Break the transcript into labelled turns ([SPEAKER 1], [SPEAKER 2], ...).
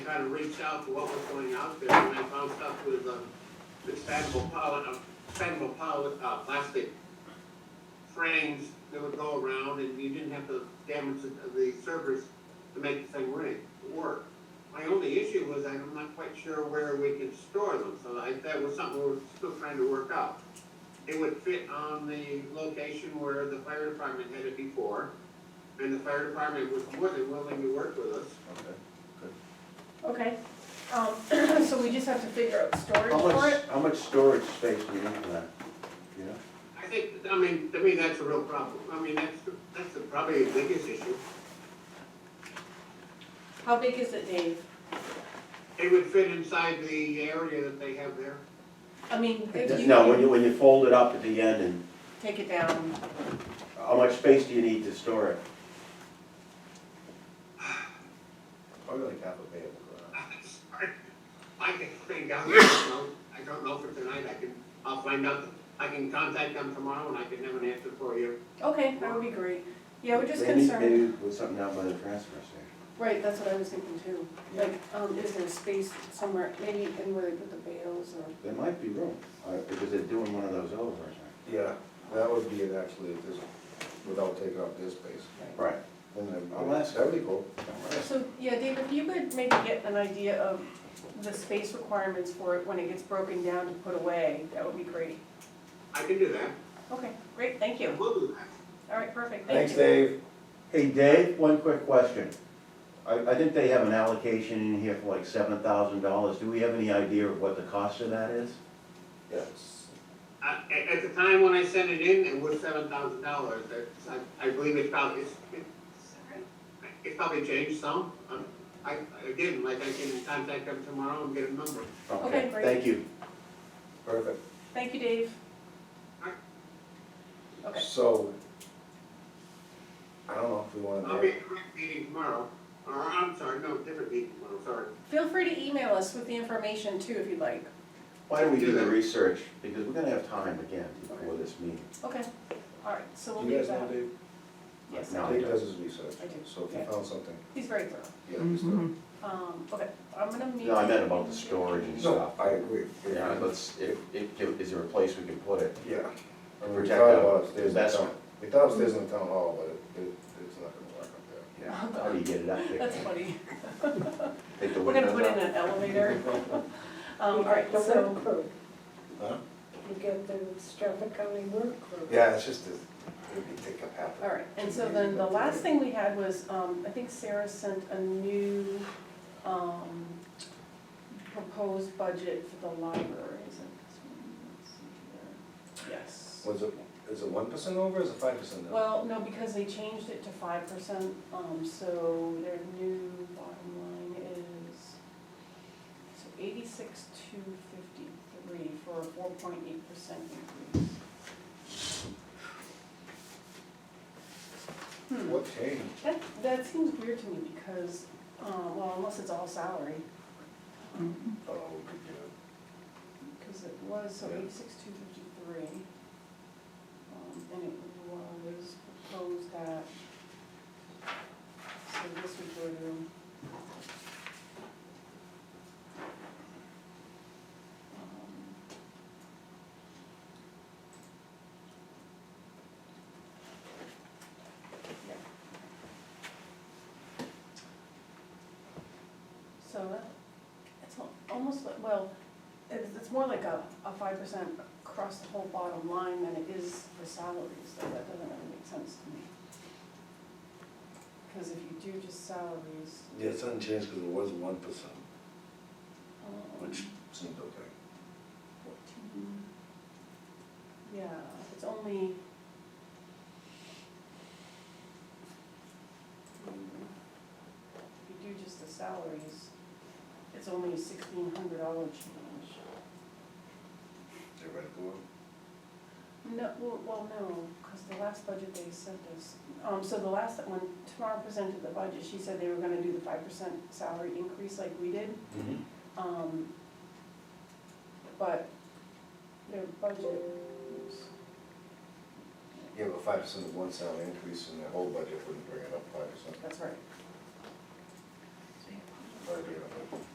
[SPEAKER 1] try to reach out to what was going out there, and I found stuff with, um, expandable poly, uh, expandable poly, uh, plastic frames that would go around, and you didn't have to damage the, the servers to make the thing ring, work. My only issue was I'm not quite sure where we can store them, so I, that was something we were still trying to work out. It would fit on the location where the fire department had it before, and the fire department was more than willing to work with us.
[SPEAKER 2] Okay.
[SPEAKER 3] Okay, um, so we just have to figure out storage
[SPEAKER 2] How
[SPEAKER 3] for
[SPEAKER 2] much,
[SPEAKER 3] it?
[SPEAKER 2] how much storage space do you need for that? You know?
[SPEAKER 1] I think, I mean, to me, that's a real problem. I mean, that's, that's the- probably the biggest issue.
[SPEAKER 3] How big is it, Dave?
[SPEAKER 1] It would fit inside the area that they have there.
[SPEAKER 3] I mean, if you
[SPEAKER 2] No, when you, when you fold it up at the end and,
[SPEAKER 3] take it down,
[SPEAKER 2] how much space do you need to store it?
[SPEAKER 4] Probably like half a payable garage.
[SPEAKER 1] Sorry. I can think out, I don't know, I don't know for tonight, I can, I'll find out. I can contact them tomorrow and I can have an answer for you.
[SPEAKER 3] okay, that would be great. Yeah, we're just
[SPEAKER 2] Maybe-
[SPEAKER 3] concerned,
[SPEAKER 2] Maybe with something down by the transfer station.
[SPEAKER 3] right, that's what I was thinking too. Like, um, is there space somewhere, maybe in where they put the bales or?
[SPEAKER 2] There might be room, uh, because they're doing one of those over. I
[SPEAKER 4] Yeah, that would be it actually, if this, without taking up this space.
[SPEAKER 2] think. Right.
[SPEAKER 4] And then,
[SPEAKER 2] I'll ask.
[SPEAKER 4] that'd be cool.
[SPEAKER 3] So, yeah, Dave, if you could maybe get an idea of the space requirements for it when it gets broken down to put away, that would be great.
[SPEAKER 1] I can do that.
[SPEAKER 3] Okay, great, thank you.
[SPEAKER 1] We'll do that.
[SPEAKER 3] All right, perfect, thank
[SPEAKER 4] Thanks,
[SPEAKER 3] you.
[SPEAKER 4] Dave.
[SPEAKER 2] Hey, Dave, one quick question. I, I think they have an allocation in here for like seven thousand dollars. Do we have any idea of what the cost of that is?
[SPEAKER 4] Yes.
[SPEAKER 1] I- At, at the time when I sent it in, it was seven thousand dollars, I, I believe it's probably, it's, it's probably changed some. Um, I, again, like I can contact them tomorrow and get a number.
[SPEAKER 3] Okay, great.
[SPEAKER 2] Thank you.
[SPEAKER 4] Perfect.
[SPEAKER 3] Thank you, Dave. Okay.
[SPEAKER 4] So, I don't know if we wanna.
[SPEAKER 1] I'll be at the meeting tomorrow, or I'm sorry, no, different meeting tomorrow, sorry.
[SPEAKER 3] Feel free to email us with the information too, if you'd like.
[SPEAKER 2] Why don't we do the research? Because we're gonna have time again before this meeting.
[SPEAKER 3] Okay, all right, so we'll
[SPEAKER 4] Do you
[SPEAKER 3] leave
[SPEAKER 4] guys know
[SPEAKER 3] that.
[SPEAKER 4] Dave?
[SPEAKER 3] Yes,
[SPEAKER 2] No. I
[SPEAKER 4] Dave
[SPEAKER 2] don't.
[SPEAKER 4] does his research,
[SPEAKER 3] I do.
[SPEAKER 4] so if he
[SPEAKER 3] Yeah.
[SPEAKER 4] found something,
[SPEAKER 3] he's very thorough.
[SPEAKER 4] yeah, he's done.
[SPEAKER 3] Um, okay, I'm gonna meet.
[SPEAKER 2] No, I meant about the storage and
[SPEAKER 4] No,
[SPEAKER 2] stuff.
[SPEAKER 4] I agree.
[SPEAKER 2] Mm-hmm. Yeah, let's, if, if, is there a place we can put it?
[SPEAKER 4] Yeah. I mean, We
[SPEAKER 2] Protect
[SPEAKER 4] thought
[SPEAKER 2] the
[SPEAKER 4] about upstairs in
[SPEAKER 2] investment.
[SPEAKER 4] town, we thought upstairs in the town hall, but it, it, it's not gonna
[SPEAKER 2] Yeah,
[SPEAKER 4] work up there.
[SPEAKER 2] how do you get it up there?
[SPEAKER 3] That's funny.
[SPEAKER 2] Take the
[SPEAKER 3] We're gonna
[SPEAKER 2] windows
[SPEAKER 3] put in
[SPEAKER 2] out?
[SPEAKER 3] an elevator. Um, all right, so,
[SPEAKER 5] crew.
[SPEAKER 4] Huh?
[SPEAKER 5] You get the Stratford County work crew.
[SPEAKER 4] Yeah, it's just, a- it'd be take up half. of
[SPEAKER 3] all
[SPEAKER 4] it.
[SPEAKER 3] right, and so then the last thing we had was, um, I think Sarah sent a new, um, proposed budget for the library, is it this one? Let's see here. Yes.
[SPEAKER 4] Was it, is it one percent over, or is it five percent over?
[SPEAKER 3] Well, no, because they changed it to five percent, um, so their new bottom line is, so eighty-six two fifty-three for a four point eight percent increase. Hmm,
[SPEAKER 4] What change?
[SPEAKER 3] that, that seems weird to me because, uh, well, unless it's all salary,
[SPEAKER 4] Oh,
[SPEAKER 3] because it was, so
[SPEAKER 4] Yeah.
[SPEAKER 3] eighty-six two fifty-three. Um, and it was proposed that, so this would go to. um, So that, it's al- almost like, well, it's, it's more like a, a five percent across the whole bottom line than it is for salaries, so that doesn't really make sense to me. Cause if you do just salaries,
[SPEAKER 4] Yeah, it's unchanged because it was one percent,
[SPEAKER 3] um,
[SPEAKER 4] which seemed okay.
[SPEAKER 3] fourteen, yeah, it's only. Hmm, If you do just the salaries, it's only a sixteen hundred dollar change.
[SPEAKER 4] Theoretical.
[SPEAKER 3] No, well, well, no, because the last budget they sent us, um, so the last, when Tamara presented the budget, she said they were gonna do the five percent salary increase like we did,
[SPEAKER 4] Mm-hmm.
[SPEAKER 2] Mhm.
[SPEAKER 3] um, but their budget, oops,
[SPEAKER 4] Yeah, but five percent of one salary increase in the whole budget wouldn't bring it up five percent.
[SPEAKER 3] that's right.
[SPEAKER 4] idea of it.